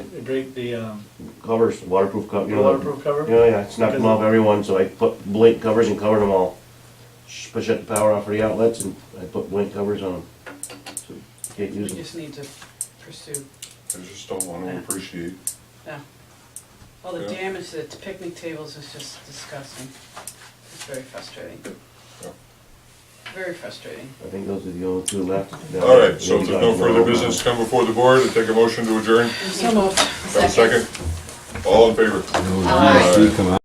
drink the, um, Covers, waterproof cover. you know, waterproof cover? Yeah, yeah, I snuck them off everyone, so I put blink covers and covered them all. Sh- Push up the power off for the outlets and I put blink covers on them. So Can't We use them. just need to pursue, I just don't wanna appreciate. yeah. All the Yeah. damage to the picnic tables is just disgusting. It's very frustrating. Yeah. Very frustrating. I think those are the only two left. All right, so if there's no further business to come before the board, I take a motion to adjourn. So moved. Have a second? All in favor? Nice. Aye. Come on.